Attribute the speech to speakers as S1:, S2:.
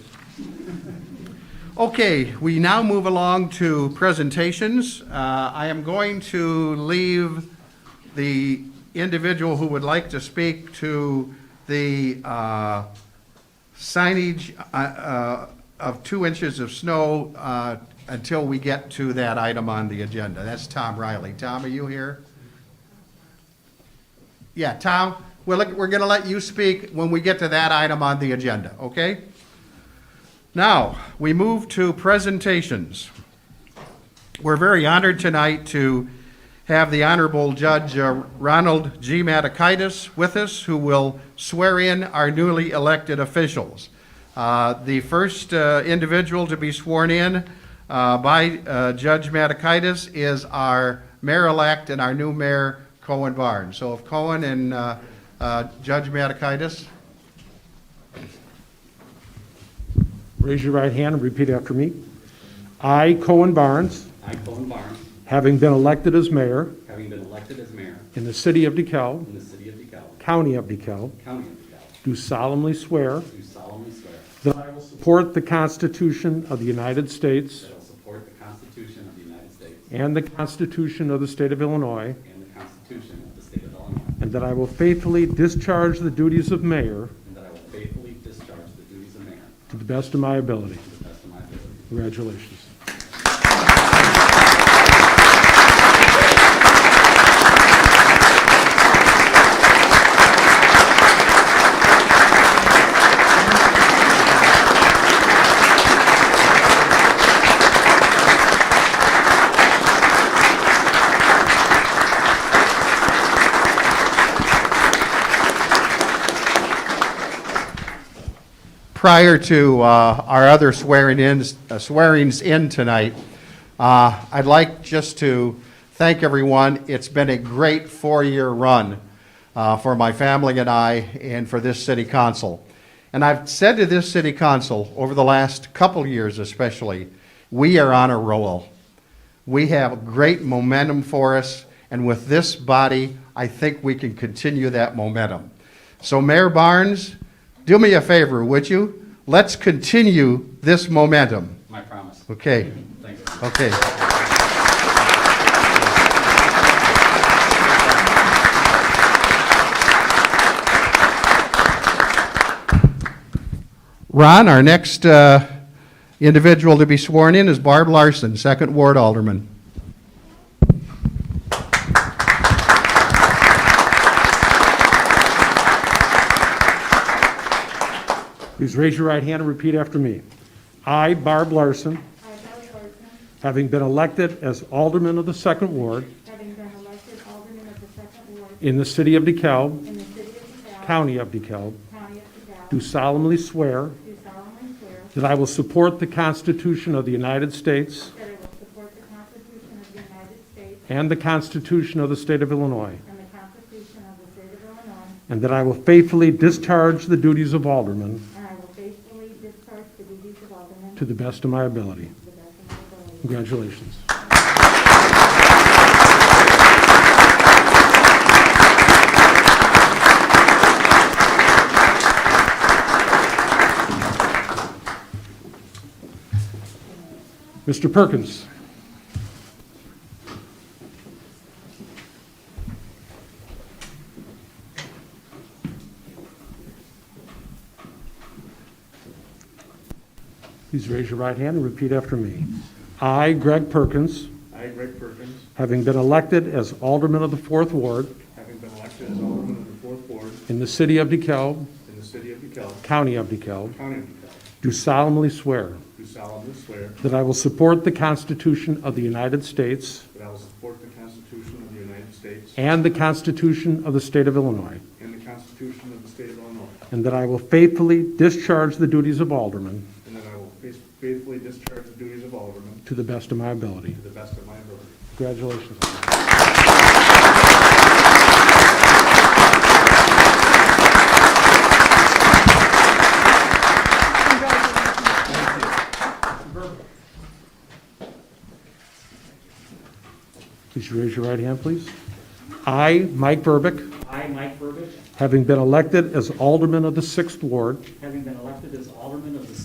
S1: Okay, we now move along to presentations. Uh, I am going to leave the individual who would like to speak to the uh, signage uh, uh, of two inches of snow uh, until we get to that item on the agenda. That's Tom Riley. Tom, are you here? Yeah, Tom, we're, look- we're going to let you speak when we get to that item on the agenda, okay? Now, we move to presentations. We're very honored tonight to have the Honorable Judge uh, Ronald G. Matakaitis with us, who will swear in our newly elected officials. Uh, The first uh, individual to be sworn in uh, by uh, Judge Matakaitis is our mayor-elect and our new mayor, Cohen Barnes. So if Cohen and uh, uh, Judge Matakaitis,
S2: Raise your right hand and repeat after me. I, Cohen Barnes,
S3: I, Colin Barnes,
S2: having been elected as mayor
S3: having been elected as mayor
S2: in the city of DeKalb,
S3: in the city of DeKalb,
S2: county of DeKalb,
S3: county of DeKalb,
S2: do solemnly swear
S3: do solemnly swear
S2: that I will support the Constitution of the United States
S3: that I will support the Constitution of the United States
S2: and the Constitution of the state of Illinois,
S3: and the Constitution of the state of Illinois,
S2: and that I will faithfully discharge the duties of mayor
S3: and that I will faithfully discharge the duties of mayor
S2: to the best of my ability.
S3: to the best of my ability.
S2: Congratulations.
S1: prior to uh, our other swearing-ins, uh, swearings in tonight, uh, I'd like just to thank everyone. It's been a great four-year run uh, for my family and I and for this city council. And I've said to this city council, over the last couple years especially, we are on a roll. We have great momentum for us, and with this body, I think we can continue that momentum. So Mayor Barnes, do me a favor, would you? Let's continue this momentum.
S3: My promise.
S1: Okay,
S3: Thank you.
S1: okay. Ron, our next uh, individual to be sworn in is Barb Larson, Second Ward Alderman.
S2: Please raise your right hand and repeat after me. I, Barb Larson,
S4: I, Bella Larson,
S2: having been elected as alderman of the second ward
S4: having been elected alderman of the second ward
S2: in the city of DeKalb,
S4: in the city of DeKalb,
S2: county of DeKalb,
S4: county of
S2: do
S4: DeKalb,
S2: solemnly swear
S4: do solemnly swear
S2: that I will support the Constitution of the United States
S4: that I will support the Constitution of the United States
S2: and the Constitution of the state of Illinois,
S4: and the Constitution of the state of Illinois,
S2: and that I will faithfully discharge the duties of alderman
S4: and I will faithfully discharge the duties of alderman
S2: to
S4: to
S2: the best of my ability.
S4: the best of my ability.
S2: Congratulations. Mr. Perkins. Please raise your right hand and repeat after me. I, Greg Perkins,
S5: I, Greg Perkins,
S2: having been elected as Alderman of the Fourth Ward
S5: having been elected as Alderman of the Fourth Ward
S2: in the city of DeKalb,
S5: in the city of DeKalb,
S2: county of DeKalb,
S5: county of DeKalb,
S2: do solemnly swear
S5: do solemnly swear
S2: that I will support the Constitution of the United States
S5: that I will support the Constitution of the United States
S2: and the Constitution of the state of Illinois,
S5: and the Constitution of the state of Illinois,
S2: and that I will faithfully discharge the duties of Alderman
S5: and that I will faith- faithfully discharge the duties of Alderman
S2: to the best of my ability.
S5: to the best of my ability.
S2: Congratulations. Please raise your right hand, please. I, Mike Burbick,
S6: I, Mike Burbidge,
S2: having been elected as Alderman of the Sixth Ward
S6: having